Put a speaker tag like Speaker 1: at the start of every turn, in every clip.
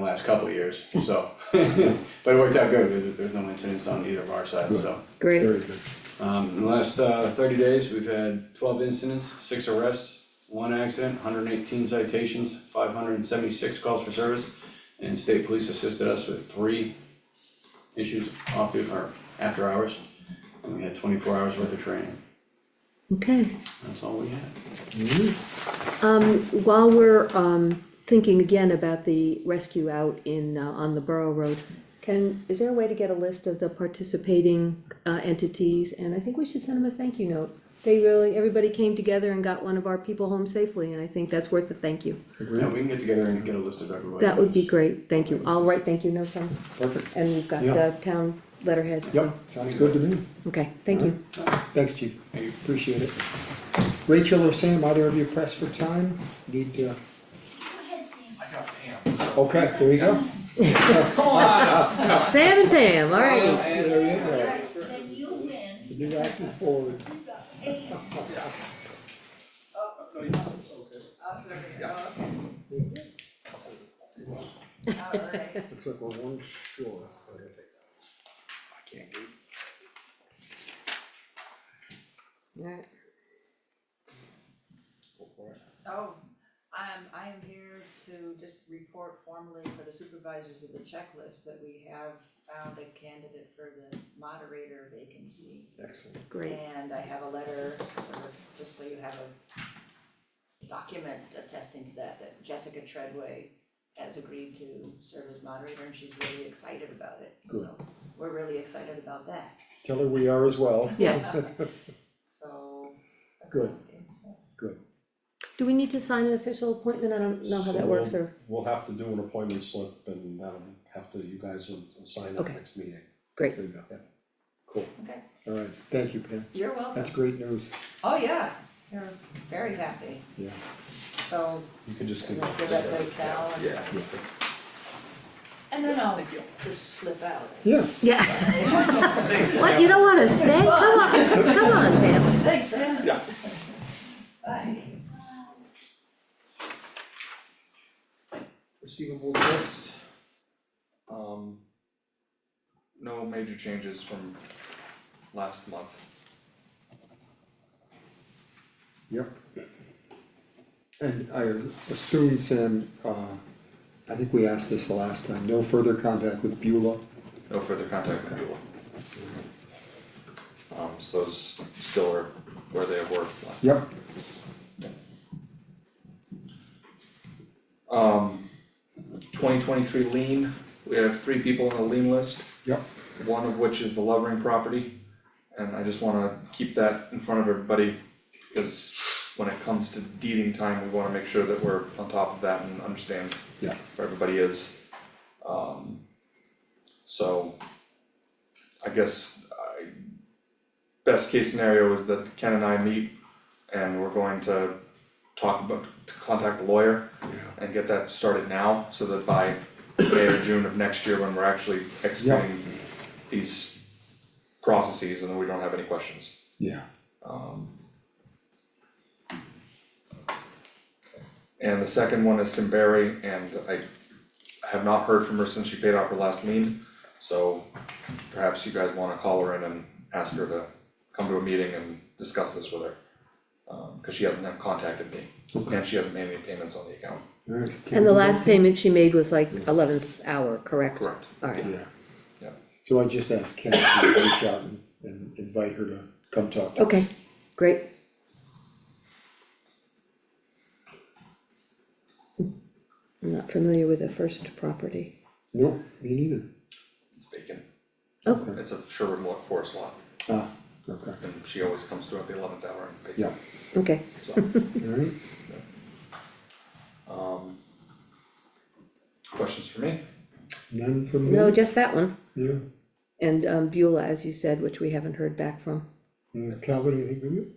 Speaker 1: last couple of years, so. But it worked out good, there, there's no incidents on either of our sides, so.
Speaker 2: Great,
Speaker 3: Very good.
Speaker 1: Um, in the last, uh, thirty days, we've had twelve incidents, six arrests, one accident, hundred and eighteen citations, five hundred and seventy-six calls for service. And state police assisted us with three issues off the, or after hours. And we had twenty-four hours worth of training,
Speaker 2: okay.
Speaker 1: that's all we had.
Speaker 2: While we're um thinking again about the rescue out in uh on the Borough Road, can, is there a way to get a list of the participating uh entities? And I think we should send them a thank you note. They really, everybody came together and got one of our people home safely, and I think that's worth a thank you.
Speaker 1: Yeah, we can get together and get a list of everybody.
Speaker 2: That would be great, thank you. I'll write thank you notes on,
Speaker 3: Perfect.
Speaker 2: and we've got
Speaker 3: Yeah.
Speaker 2: the town letterhead, so,
Speaker 3: Yep, sounds good to me.
Speaker 2: okay, thank you.
Speaker 3: Thanks, chief.
Speaker 1: Thank you.
Speaker 3: Appreciate it. Rachel or Sam, either of you pressed for time? Need to, okay, there you go.
Speaker 2: Sam and Pam, alrighty.
Speaker 4: Then you win.
Speaker 3: The new act is forward.
Speaker 4: Alright.
Speaker 3: Looks like we're one short.
Speaker 2: Alright.
Speaker 4: Oh, um, I am here to just report formally for the supervisors of the checklist that we have found a candidate for the moderator vacancy.
Speaker 3: Excellent.
Speaker 2: Great,
Speaker 4: And I have a letter, for- just so you have a document attesting to that, that Jessica Treadway has agreed to serve as moderator and she's really excited about it. So We're really excited about that,
Speaker 3: Tell her we are as well.
Speaker 2: yeah.
Speaker 4: so. that's
Speaker 3: Good.
Speaker 4: something, so.
Speaker 3: Good.
Speaker 2: Do we need to sign an official appointment? I don't know how that works,
Speaker 5: So um,
Speaker 2: or?
Speaker 5: We'll have to do an appointment slip and that'll have to, you guys will sign up
Speaker 2: Okay.
Speaker 5: next meeting.
Speaker 2: Great.
Speaker 3: There you go. Cool.
Speaker 4: Okay.
Speaker 3: All right, thank you, Pam.
Speaker 4: You're welcome.
Speaker 3: That's great news.
Speaker 4: Oh, yeah, you're very happy,
Speaker 3: Yeah.
Speaker 4: so
Speaker 5: You can just.
Speaker 4: you
Speaker 5: give
Speaker 4: know, give that to Cal and. Yeah. And then I'll just slip out.
Speaker 3: Yeah,
Speaker 2: Yeah. What, you don't wanna stay? Come on, come on, Pam.
Speaker 4: Thanks, Sam. Yeah. Bye.
Speaker 6: receivables list. Um, no major changes from last month.
Speaker 3: yep. And I assume, Sam, uh, I think we asked this the last time, no further contact with Beulah?
Speaker 6: No further contact with Beulah. Um, so those still are where they were last. time.
Speaker 3: Yep,
Speaker 6: Um, twenty twenty-three lien, we have three people on the lien list.
Speaker 3: yep,
Speaker 6: one of which is the Lovering property. And I just wanna keep that in front of everybody, because when it comes to deeding time, we wanna make sure that we're on top of that and understand
Speaker 3: Yeah.
Speaker 6: where everybody is. Um, so I guess I, best case scenario is that Ken and I meet and we're going to talk about, to contact the lawyer and get that started now, so that by May or June of next year, when we're actually executing these processes, and then we don't have any questions.
Speaker 3: yeah,
Speaker 6: And the second one is Simberry, and I have not heard from her since she paid off her last lien, so perhaps you guys wanna call her in and ask her to come to a meeting and discuss this with her. Um, cause she hasn't contacted me, and she hasn't made any payments on the account.
Speaker 3: alright.
Speaker 2: And the last payment she made was like eleventh hour, correct?
Speaker 6: Correct.
Speaker 2: Alright,
Speaker 3: Yeah,
Speaker 6: Yeah.
Speaker 3: so I just asked Ken to reach out and, and invite her to come talk to us.
Speaker 2: okay, great. I'm not familiar with the first property.
Speaker 3: Nope, me neither.
Speaker 6: It's vacant,
Speaker 2: Oh,
Speaker 6: it's a Sherwood Lo- Forest lot,
Speaker 3: Ah, okay,
Speaker 6: and she always comes through at the eleventh hour and pays.
Speaker 3: yeah,
Speaker 2: okay,
Speaker 6: So,
Speaker 3: alright,
Speaker 6: um. Questions for me?
Speaker 3: none from
Speaker 2: no,
Speaker 3: me,
Speaker 2: just that one,
Speaker 3: yeah,
Speaker 2: and um Beulah, as you said, which we haven't heard back from.
Speaker 3: yeah, Uh, Calvin, anything from you?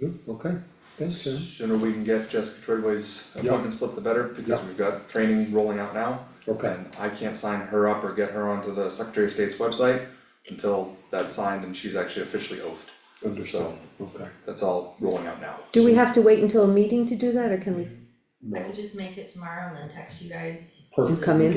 Speaker 3: No, okay, thanks, Sam.
Speaker 6: Sooner we can get Jessica Treadway's appointment slip, the better, because
Speaker 3: Yeah.
Speaker 6: we've got training rolling out now.
Speaker 3: Okay.
Speaker 6: And I can't sign her up or get her onto the Secretary of State's website until that's signed and she's actually officially oathed.
Speaker 3: Understood, okay.
Speaker 6: That's all rolling out now.
Speaker 2: Do we have to wait until a meeting to do that, or can we
Speaker 7: I could just make it tomorrow and then text you guys
Speaker 2: come in?